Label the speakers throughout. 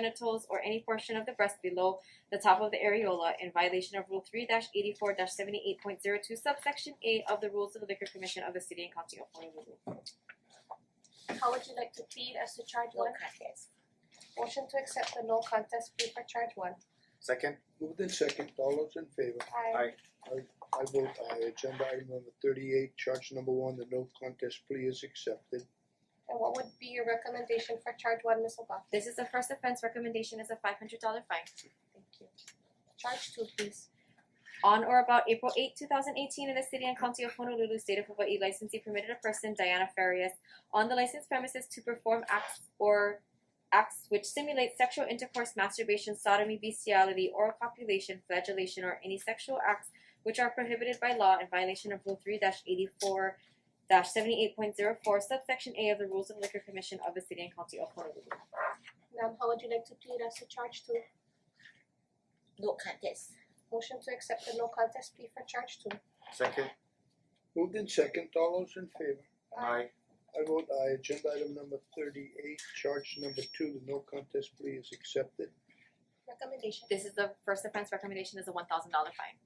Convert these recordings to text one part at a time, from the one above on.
Speaker 1: genitals, or any portion of the breast below the top of the areola in violation of Rule 3 84 78.02, subsection A of the Rules of the Liquor Commission of the City and County of Honolulu.
Speaker 2: How would you like to plead as to charge
Speaker 3: No
Speaker 2: one?
Speaker 3: contest.
Speaker 2: Motion to accept the no contest plea for charge one.
Speaker 4: Second,
Speaker 5: Moved in second, all those in favor?
Speaker 2: Aye.
Speaker 5: I vote aye, agenda item number thirty-eight, charge number one, the no contest plea is accepted.
Speaker 2: And what would be your recommendation for charge one, Ms. Ogata?
Speaker 1: This is the first offense. Recommendation is a $500 fine.
Speaker 2: Thank you. Charge two, please.
Speaker 1: On or about April 8, 2018, in the city and county of Honolulu, state of Hawaii, licensee permitted a person, Diana Farias, on the licensed premises to perform acts or acts which simulate sexual intercourse, masturbation, sodomy, bestiality, oral copulation, flagellation, or any sexual acts which are prohibited by law in violation of Rule 3 84 78.04, subsection A of the Rules of Liquor Commission of the City and County of Honolulu.
Speaker 2: Ma'am, how would you like to plead as to charge two?
Speaker 3: No contest.
Speaker 2: Motion to accept the no contest plea for charge two.
Speaker 4: second,
Speaker 5: Moved in second, all those in favor?
Speaker 4: aye,
Speaker 5: I vote aye, agenda item number thirty-eight, charge number two, the no contest plea is accepted.
Speaker 2: Recommendation.
Speaker 1: This is the first offense. Recommendation is a $1,000 fine.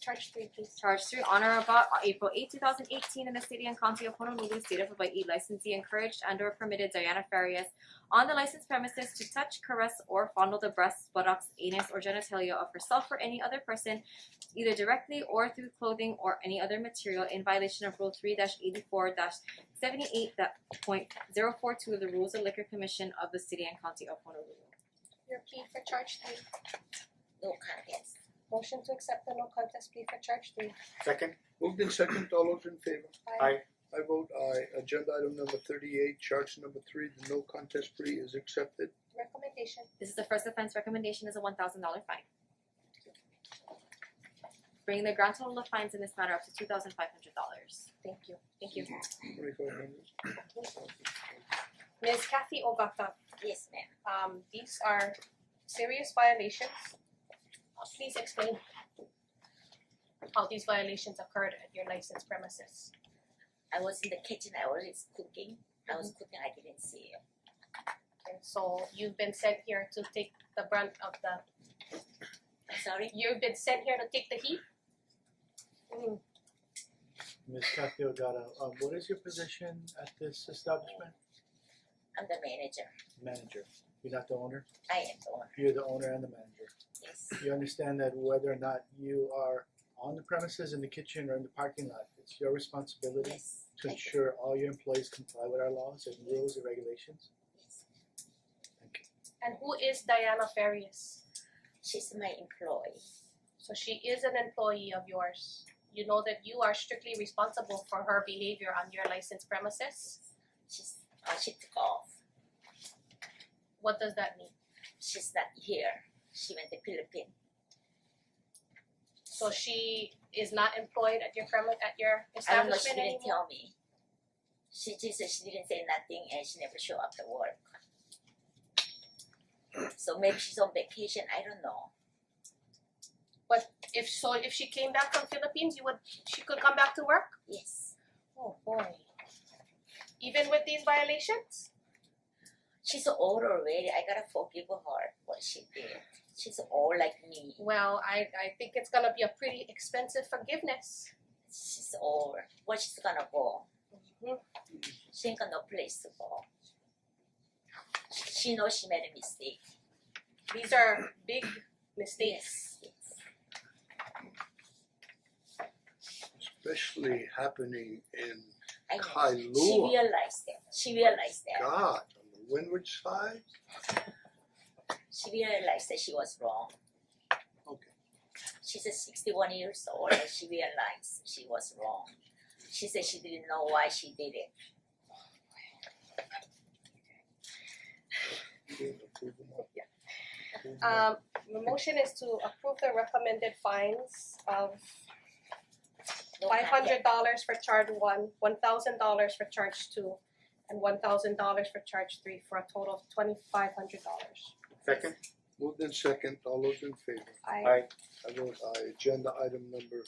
Speaker 2: Charge three, please.
Speaker 1: charged through on or about April 8, 2018 in the city and county of Honolulu, state of Hawaii, licensee encouraged and or permitted Diana Farias on the licensed premises to touch, caress, or fondle the breasts, buttocks, anus, or genitalia of herself or any other person, either directly or through clothing or any other material in violation of Rule 3 84 78.042 of the Rules of Liquor Commission of the City and County of Honolulu.
Speaker 2: Your plea for charge three.
Speaker 3: No contest.
Speaker 2: Motion to accept the no contest plea for charge three.
Speaker 4: second,
Speaker 5: Moved in second, all those in favor?
Speaker 4: Aye.
Speaker 5: I vote aye, agenda item number thirty-eight, charge number three, the no contest plea is accepted.
Speaker 2: Recommendation.
Speaker 1: This is the first offense. Recommendation is a one thousand dollar fine. Bringing the grand total of fines in this matter up to two thousand five hundred dollars.
Speaker 2: Thank you.
Speaker 1: Thank you.
Speaker 5: Twenty-five hundred.
Speaker 6: Ms. Kathy Ogata,
Speaker 3: Yes, ma'am.
Speaker 6: um these are serious violations. Uh, Please explain how these violations occurred at your licensed premises.
Speaker 3: I was in the kitchen. I was cooking. I was cooking. I didn't see it.
Speaker 6: And so you've been sent here to take the brunt of the,
Speaker 3: I'm sorry.
Speaker 6: you've been sent here to take the heat? Mm-hmm.
Speaker 7: Ms. Kathy Ogata, um what is your position at this establishment?
Speaker 3: I'm the manager.
Speaker 7: Manager, you're not the owner,
Speaker 3: I am the owner.
Speaker 7: you're the owner and the manager.
Speaker 3: Yes.
Speaker 7: You understand that whether or not you are on the premises, in the kitchen or in the parking lot, it's your responsibility
Speaker 3: Yes.
Speaker 7: to
Speaker 3: I do.
Speaker 7: ensure all your employees comply with our laws and rules and regulations.
Speaker 3: Yes.
Speaker 7: Thank you.
Speaker 6: And who is Diana Farias?
Speaker 3: She's my employee.
Speaker 6: So she is an employee of yours. You know that you are strictly responsible for her behavior on your licensed premises?
Speaker 3: She's oh, she took off.
Speaker 6: What does that mean?
Speaker 3: She's not here. She went to Philippines.
Speaker 6: So she is not employed at your premise, at your
Speaker 3: I don't know. She
Speaker 6: establishment
Speaker 3: didn't
Speaker 6: anymore?
Speaker 3: tell me. She just said she didn't say nothing and she never showed up to work. So maybe she's on vacation. I don't know.
Speaker 6: If so, if she came back from Philippines, you would, she could come back to work?
Speaker 3: Yes.
Speaker 6: Oh boy. Even with these violations?
Speaker 3: She's old already. I gotta forgive her what she did. She's old like me.
Speaker 6: Well, I I think it's gonna be a pretty expensive forgiveness.
Speaker 3: She's old. Where she's gonna go? She ain't got no place to go. She knows she made a mistake.
Speaker 6: These are big mistakes.
Speaker 3: Yes. yes.
Speaker 5: Especially happening in
Speaker 3: I know. She
Speaker 5: Kailua,
Speaker 3: realized that. She realized that.
Speaker 5: God, on the windward side?
Speaker 3: She realized that she was wrong.
Speaker 5: Okay.
Speaker 3: She's a 61 years old and she realized she was wrong. She said she didn't know why she did it.
Speaker 6: Um the motion is to approve the recommended fines of five
Speaker 3: No contact.
Speaker 6: hundred dollars for charge one, one thousand dollars for charge two, and one thousand dollars for charge three for a total of twenty five hundred dollars.
Speaker 4: second,
Speaker 5: Moved in second, all those in favor?
Speaker 6: I
Speaker 4: aye,
Speaker 5: I vote aye, agenda item number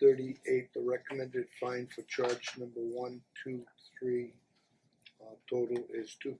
Speaker 5: thirty-eight, the recommended fine for charge number one, two, three. Uh total is two